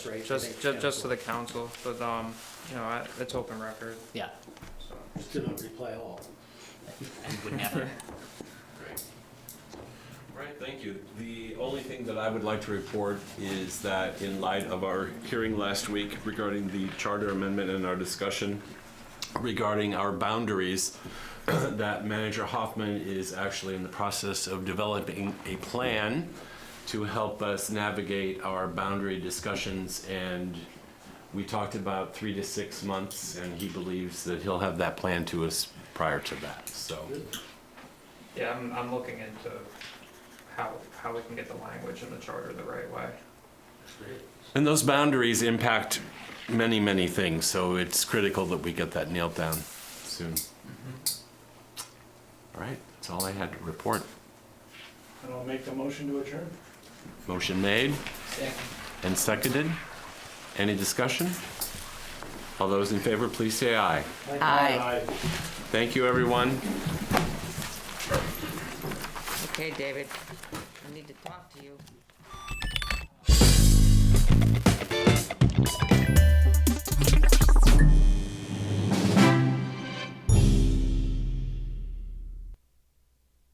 right? Just, just, just to the council, but, um, you know, I- it's open record, Yeah, so. Just do not reply all. and would never. Great. All right, thank you. The only thing that I would like to report is that in light of our hearing last week regarding the charter amendment and our discussion regarding our boundaries, that Manager Hoffman is actually in the process of developing a plan to help us navigate our boundary discussions and we talked about three to six months and he believes that he'll have that plan to us prior to that, so. Yeah, I'm, I'm looking into how, how we can get the language in the charter the right way. And those boundaries impact many, many things, so it's critical that we get that nailed down soon. All right, that's all I had to report. And I'll make the motion to adjourn. Motion made and seconded. Any discussion? All those in favor, please say aye. Aye. Thank you, everyone. Okay, David, I need to talk to you.